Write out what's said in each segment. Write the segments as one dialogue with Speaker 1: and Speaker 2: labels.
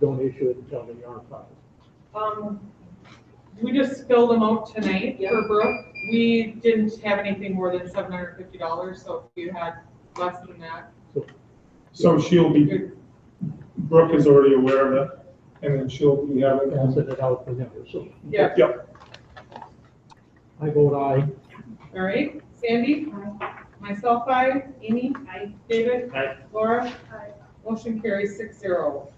Speaker 1: don't issue it until the yard files.
Speaker 2: Um, we just filled them out tonight for Brooke. We didn't have anything more than seven hundred fifty dollars, so if you had less than that,
Speaker 3: So she'll be,
Speaker 2: you're,
Speaker 3: Brooke is already aware of it, and then she'll be having.
Speaker 1: I'll send it out for them, so
Speaker 2: yeah,
Speaker 3: Yep,
Speaker 1: I vote aye.
Speaker 2: all right? Sandy? Myself, I. Amy? I. David?
Speaker 3: Aye.
Speaker 2: Laura? Motion carries six zero.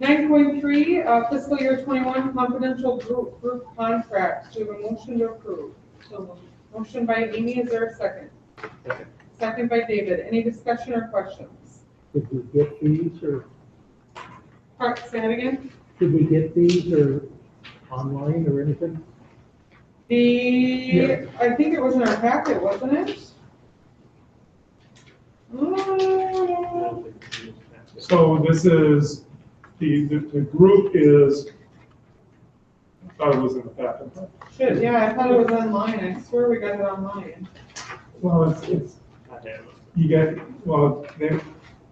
Speaker 2: Nine point three, uh, fiscal year twenty-one confidential group, group contracts. Do we have a motion to approve? Motion by Amy, is there a second?
Speaker 1: Second.
Speaker 2: Second by David. Any discussion or questions?
Speaker 1: Did we get these or,
Speaker 2: Park, say that again?
Speaker 1: did we get these or online or anything?
Speaker 2: The,
Speaker 1: Yeah.
Speaker 2: I think it was in our packet, wasn't it? Mm,
Speaker 3: so this is, the, the, the group is, I thought it was in the packet.
Speaker 2: Shit, yeah, I thought it was online, I swear we got it online.
Speaker 3: Well, it's, it's, you get, well, they,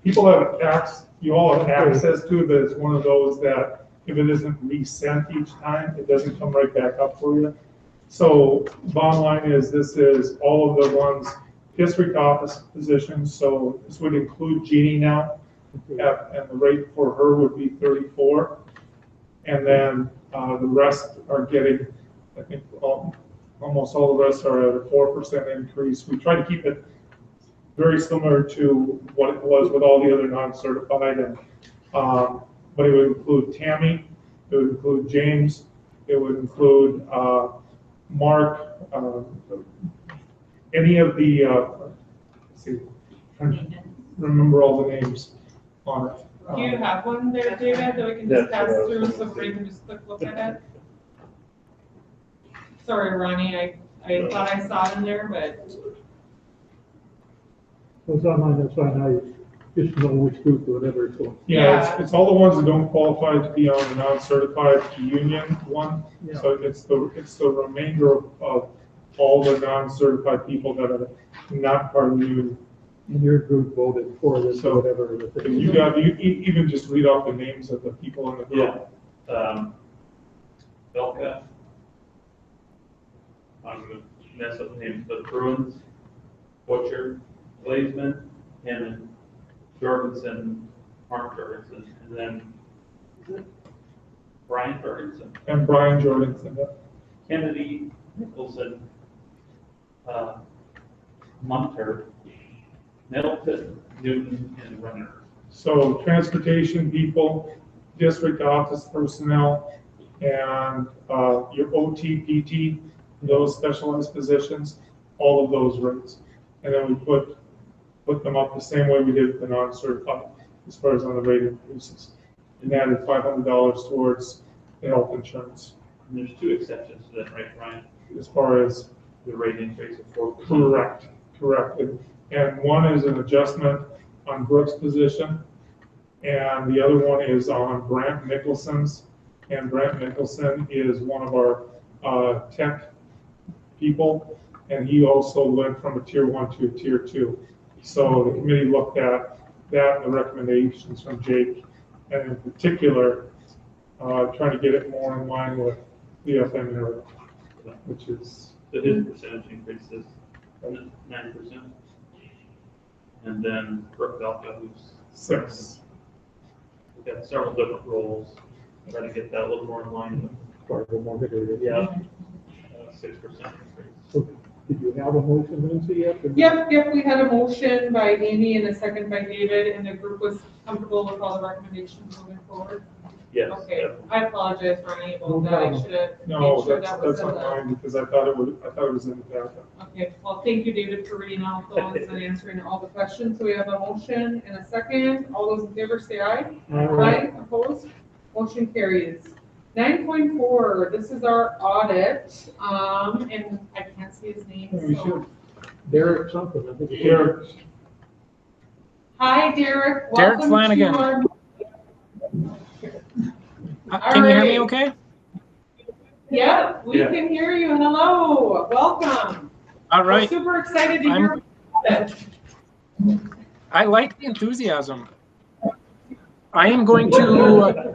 Speaker 3: people have access, you all have access to, it, but it's one of those that if it isn't resent each time, it doesn't come right back up for you. So bottom line is, this is all of the ones, district office positions, so this would include Jeannie now,
Speaker 1: Okay.
Speaker 3: at- and the rate for her would be thirty-four. And then, uh, the rest are getting, I think, all, almost all the rest are at a four percent increase. We try to keep it very similar to what it was with all the other non-certified and, um, but it would include Tammy, it would include James, it would include, uh, Mark, uh, any of the, uh, let's see, trying to remember all the names on it.
Speaker 2: Do you
Speaker 3: Um,
Speaker 2: have one there, David, that we can just pass through, so we can just quick look at it? Sorry, Ronnie, I, I thought I saw it in there, but,
Speaker 1: Well, it's online, that's fine, I just know which group, whatever it's going.
Speaker 3: Yeah, it's, it's all the ones that don't qualify to be on the non-certified union one. So it's the, it's the remainder of- of all the non-certified people that are not part of the union.
Speaker 1: And your group voted for this, or
Speaker 3: So-
Speaker 1: whatever. the
Speaker 3: If
Speaker 1: thing
Speaker 3: you
Speaker 1: is.
Speaker 3: got, you e- even just read off the names of the people in the
Speaker 4: Yeah.
Speaker 3: group.
Speaker 4: Um, Belka. I'm gonna mess up the names, but Bruins, Butcher, Blazeman, Hammond, Jorgensen, Mark Jorgensen, and then Brian Jorgensen,
Speaker 3: And Brian Jordanson,
Speaker 4: Kennedy, Nicholson, uh, Munter, Middleton, Newton, and Renner.
Speaker 3: So transportation people, district office personnel, and uh, your OT, PT, those specialized positions, all of those rates. And then we put, put them up the same way we did the non-certified, as far as on the rate increases. And added five hundred dollars towards the health insurance,
Speaker 4: And there's two exceptions to that, right, Brian?
Speaker 3: as far as
Speaker 4: The rate increase of four percent.
Speaker 3: Correct, correct. And- And one is an adjustment on Brooks' position, and the other one is on Brant Nicholson's. And Brant Nicholson is one of our uh, tech people, and he also went from a tier one to a tier two. So the committee looked at that and the recommendations from Jake, and in particular, uh, trying to get it more in line with the FM area, which is
Speaker 4: So his percentage increases nine percent. And then Brooke Belka, who's
Speaker 3: six.
Speaker 4: we've got several different roles, try to get that a little more in line with uh,
Speaker 1: Part of the market area.
Speaker 4: six percent increase.
Speaker 1: So, Did you have a motion, Lindsay, yet? or-
Speaker 2: yep, yep, we had a motion by Amy and a second by David, and the group was comfortable with all the recommendations moving forward.
Speaker 4: Yes.
Speaker 2: Okay,
Speaker 4: definitely.
Speaker 2: I apologize, Ronnie,
Speaker 1: No
Speaker 2: about that, I
Speaker 1: problem.
Speaker 2: should have
Speaker 3: No,
Speaker 2: made sure
Speaker 3: that's,
Speaker 2: that was
Speaker 3: that's
Speaker 2: in
Speaker 3: not
Speaker 2: the.
Speaker 3: mine, because I thought it was, I thought it was in the backup.
Speaker 2: Okay, well, thank you, David, for reading all the ones and answering all the questions, so we have a motion and a second, all those in favor say aye. Aye, opposed, motion carries. Nine point four, this is our audit, um, and I can't see his name,
Speaker 3: We
Speaker 2: so.
Speaker 3: should-
Speaker 1: Derek something, I think. it was.
Speaker 3: Derek.
Speaker 2: Hi, Derek,
Speaker 5: Derek
Speaker 2: welcome to
Speaker 5: Flanagan.
Speaker 2: our.
Speaker 5: Uh, Can you hear
Speaker 2: Alright.
Speaker 5: me okay?
Speaker 2: Yeah, we
Speaker 4: Yeah.
Speaker 2: can hear you, hello, welcome.
Speaker 5: All
Speaker 2: We're
Speaker 5: right.
Speaker 2: Super excited to hear.
Speaker 5: I'm-
Speaker 2: about it.
Speaker 5: I like the enthusiasm. I am going to uh,